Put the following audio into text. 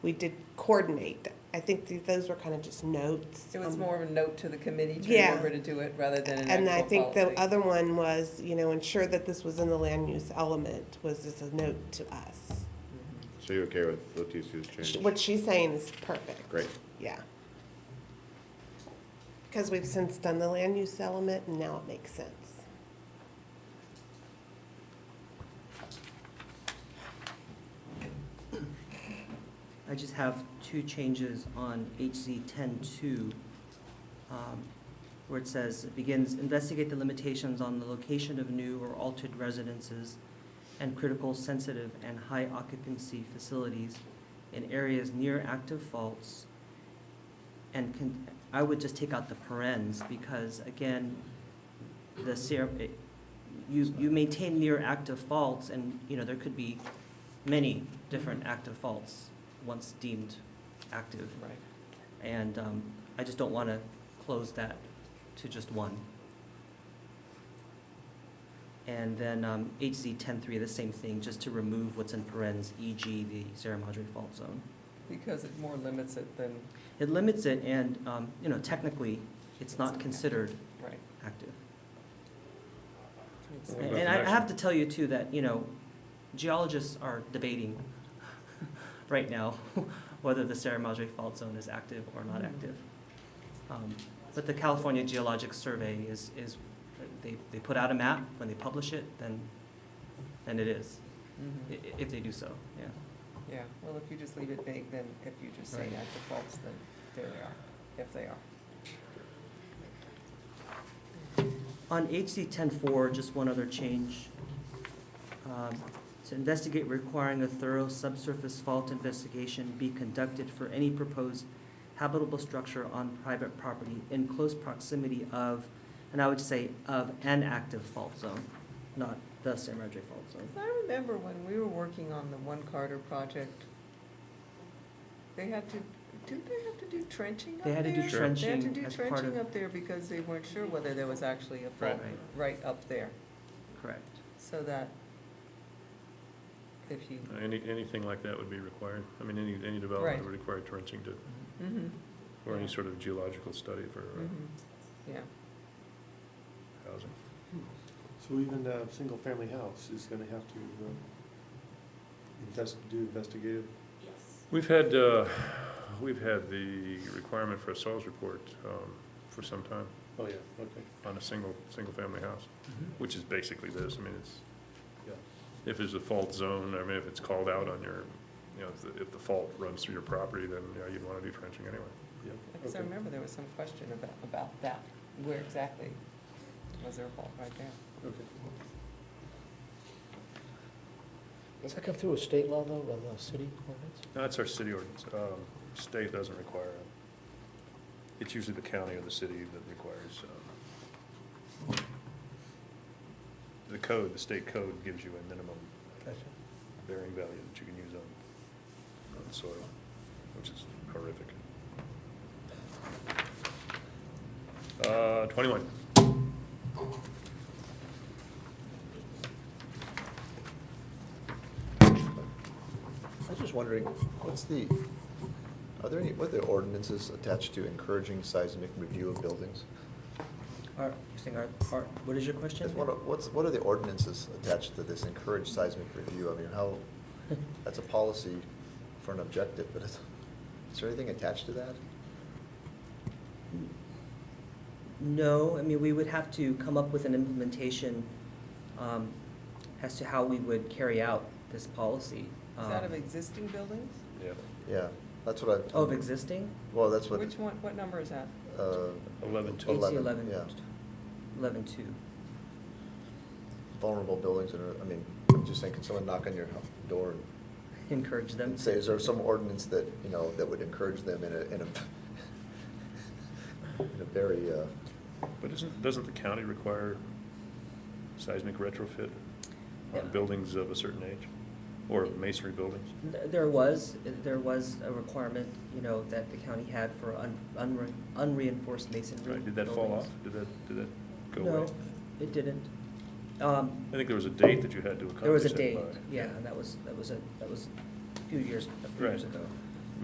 we did coordinate. I think th- those were kind of just notes. It was Um, more of a note to the committee to Yeah. remember to do it rather than an And I actual think the policy. other one was, you know, ensure that this was in the land use element was as a note to us. So you're okay with Letitia's Sh- change? What she's saying is perfect. Great. Yeah. Because we've since done the land use element and now it makes sense. I just have two changes on HZ ten-two, um, where it says, it begins, investigate the limitations on the location of new or altered residences and critical, sensitive, and high occupancy facilities in areas near active faults. And can, I would just take out the parens, because again, the ser, it- you, you maintain near active faults, and, you know, there could be many different active faults once deemed active. Right. And um, I just don't want to close that to just one. And then um, HZ 10.3, the same thing, just to remove what's in parens, e.g. the Sierra Madre fault zone. Because it more limits it than, It limits it and, um, you know, technically, it's not considered right. active. Makes What sense. about And the I I next have one? to tell you too that, you know, geologists are debating right now whether the Sierra Madre Fault Zone is active or not active. Um, But the California Geologic Survey is, is, they, they put out a map, when they publish it, then, then it is, i- Mhm. i- if they do so, yeah. Yeah, well, if you just leave it vague, then if you just say Right. not defaults, then there they are, if they are. On HC ten-four, just one other change. Um, To investigate requiring a thorough subsurface fault investigation be conducted for any proposed habitable structure on private property in close proximity of, and I would say of an active fault zone, not the San Rodrigo fault zone. Because I remember when we were working on the One Carter project, they had to, didn't they have to do trenching up They there? had to do Sure. They had to trenching do as part trenching of, up there because they weren't sure whether there was actually a fault Right. right up there, correct. so that if you, Any, anything like that would be required. I mean, any, any development Right. would require trenching to, mhm, or Yeah. any sort of geological study for uh, mhm, yeah. Mm-hmm. housing. So even a single-family house is gonna have to, um, invest, do investigative, We've had, uh, we've had the requirement for a soils report um, for some time oh yeah, okay. on a single, single-family house, which is basically this. I mean, it's, Yeah. if there's a fault zone, I mean, if it's called out on your, you know, if the, if the fault runs through your property, then, yeah, you'd want to do trenching anyway. Yeah, Because I okay. remember there was some question about, about that, where exactly was there a fault right there? Okay. Does that come through a state law, though, rather than a city ordinance? No, that's our city ordinance. Um, State doesn't require it. It's usually the county or the city that requires. um, The code, the state code gives you a minimum bearing value that you can use on, on soil, which is horrific. Uh, Twenty-one. I was just wondering, what's the, are there any, what are the ordinances attached to encouraging seismic review of buildings? Art, you're saying art, art, what is your question? Just what are- What's, what are the ordinances attached to this encourage seismic review? I mean, how, that's a policy for an objective, but is, is there anything attached to that? No, I mean, we would have to come up with an implementation um, as to how we would carry out this policy. Is that of Um, existing buildings? Yeah. Yeah, that's what I. Oh, Of existing? Well, that's what. Which one, what number is that? uh, Eleven two. HC Eleven, yeah. Eleven two. Vulnerable buildings, and, I mean, I'm just saying, can someone knock on your door and Encourage them. and say, is there some ordinance that, you know, that would encourage them in a, in a, in a very, uh, But isn't, doesn't the county require seismic retrofit Yeah. on buildings of a certain age? Or masonry buildings? Th- There was, there was a requirement, you know, that the county had for un- unre- unreinforced masonry. Right, did that fall off? buildings. Did that, did that go away? No, it didn't. Um, I think there was a date that you had to accomplish There was a that date, by. yeah, and that was, that was a, that was a few years, a few years Right. ago.